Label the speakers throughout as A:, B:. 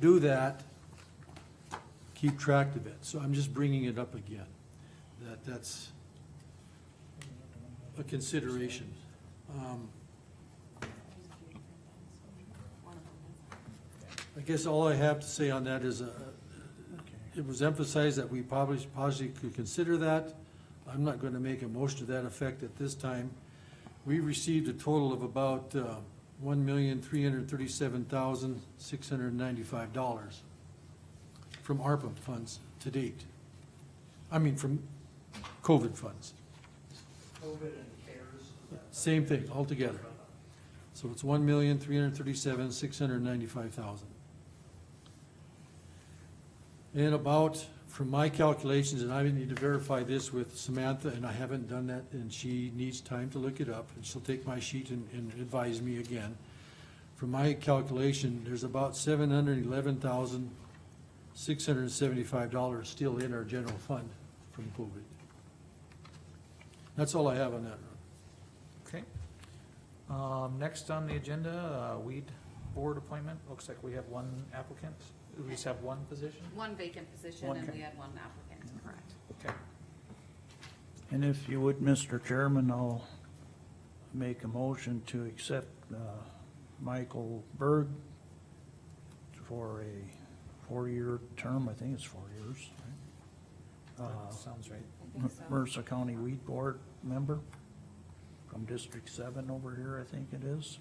A: do that, keep track of it. So I'm just bringing it up again, that that's a consideration. Um, I guess all I have to say on that is, uh, it was emphasized that we probably, possibly could consider that. I'm not gonna make a motion to that effect at this time. We received a total of about, uh, one million, three hundred thirty-seven thousand, six hundred ninety-five dollars from ARPA funds to date. I mean, from COVID funds.
B: COVID and CARES.
A: Same thing altogether. So it's one million, three hundred thirty-seven, six hundred ninety-five thousand. And about, from my calculations, and I need to verify this with Samantha, and I haven't done that, and she needs time to look it up, and she'll take my sheet and, and advise me again. From my calculation, there's about seven hundred eleven thousand, six hundred seventy-five dollars still in our general fund from COVID. That's all I have on that, Ron.
C: Okay. Um, next on the agenda, uh, weed board appointment. Looks like we have one applicant. We just have one position.
D: One vacant position
C: One
D: and
C: ca-
D: we had one applicant, correct.
C: Okay.
B: And if you would, Mr. Chairman, I'll make a motion to accept uh, Michael Berg for a four-year term, I think it's four years. right?
E: Uh-huh.
C: That
B: Uh,
C: Sounds right.
D: I think so.
B: Mercer County Weed Board member from District Seven over here, I think it is.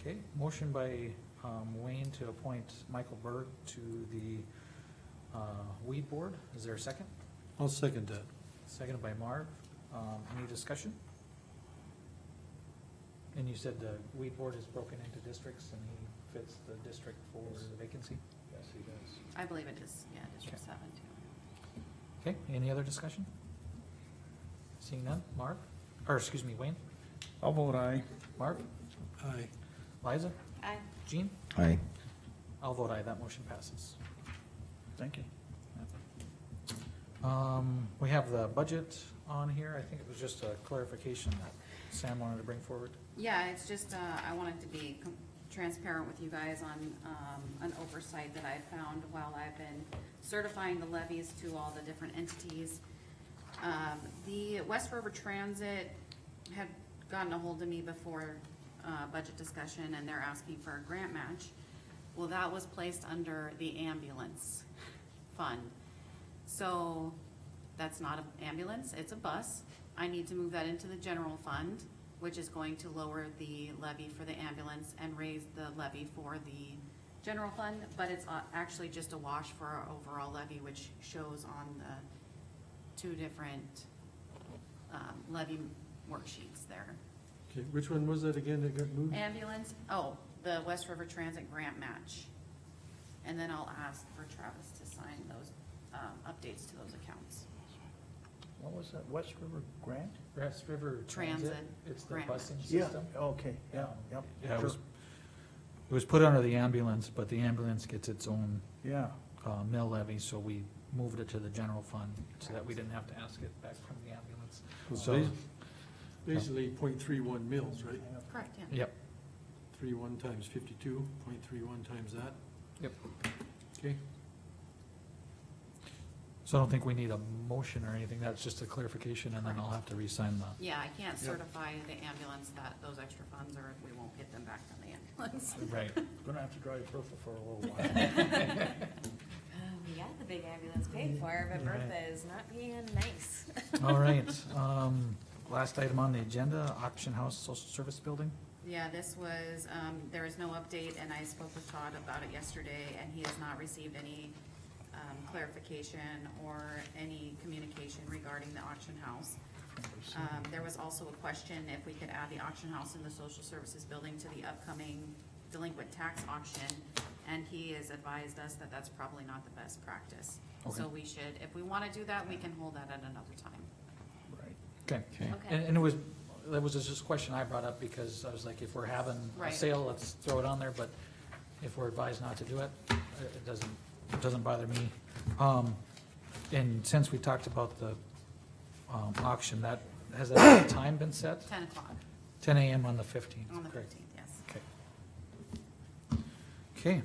C: Okay, motion by, um, Wayne to appoint Michael Berg to the, uh, weed board. Is there a second?
A: I'll second that.
C: Seconded by Marv. Um, any discussion? And you said the weed board is broken into districts and he fits the district for the vacancy?
E: Yes, he does.
D: I believe it is, yeah, District
C: Okay.
D: Seven too.
C: Okay, any other discussion? Seeing none, Marv, or excuse me, Wayne,
B: I'll vote aye.
C: Marv,
A: Aye.
C: Liza,
D: I,
C: Jean?
F: Aye.
C: I'll vote aye, that motion passes.
B: Thank you.
C: Um, we have the budget on here, I think it was just a clarification that Sam wanted to bring forward.
D: yeah, it's just, uh, I wanted to be com- transparent with you guys on, um, an oversight that I found while I've been certifying the levies to all the different entities. Um, the West River Transit had gotten a hold of me before, uh, budget discussion and they're asking for a grant match. Well, that was placed under the ambulance fund. So that's not an ambulance, it's a bus. I need to move that into the general fund, which is going to lower the levy for the ambulance and raise the levy for the general fund, but it's uh, actually just a wash for our overall levy, which shows on the two different um, levy worksheets there.
A: Okay, which one was that again that got moved?
D: Ambulance, oh, the West River Transit grant match. And then I'll ask for Travis to sign those, um, updates to those accounts.
B: What was that, West River Grant?
C: West River Transit,
D: Transit
C: it's the
D: grant
C: busing
D: match.
B: Yeah,
C: system.
B: okay, yeah, yep.
C: Yeah, it was,
B: sure.
C: it was put under the ambulance, but the ambulance gets its own,
B: Yeah,
C: uh, mill levy, so we moved it to the general fund so that we didn't have to ask it back from the ambulance. Um,
A: It's
C: So,
A: bas- Basically point three one mils, right?
D: Correct, yeah.
C: yep,
A: Three one times fifty-two, point three one times that,
C: yep.
A: okay?
C: So I don't think we need a motion or anything, that's just a clarification, and then I'll have to re-sign the,
D: Yeah, I can't certify the ambulance that those extra funds are, if we won't get them back from the ambulance.
C: right.
B: gonna have to drive purple for a little while.
G: Yeah, the big ambulance paid for, but
C: Right.
G: Bertha is not being nice.
C: All right, um, last item on the agenda, auction house social service building.
D: Yeah, this was, um, there is no update, and I spoke with Todd about it yesterday, and he has not received any, um, clarification or any communication regarding the auction house. Um, there was also a question if we could add the auction house in the social services building to the upcoming delinquent tax auction, and he has advised us that that's probably not the best practice.
C: Okay.
D: So we should, if we wanna do that, we can hold that at another time.
B: Right.
C: Okay.
F: Okay.
D: Okay.
C: And, and it was, that was just a question I brought up because I was like, if we're having a
D: Right.
C: sale, let's throw it on there, but if we're advised not to do it, it it doesn't, it doesn't bother me. Um, and since we talked about the, um, auction, that, has that time been set?
D: Ten o'clock
C: Ten AM on the fifteenth,
D: on the
C: correct?
D: fifteenth, yes.
C: Okay. Okay,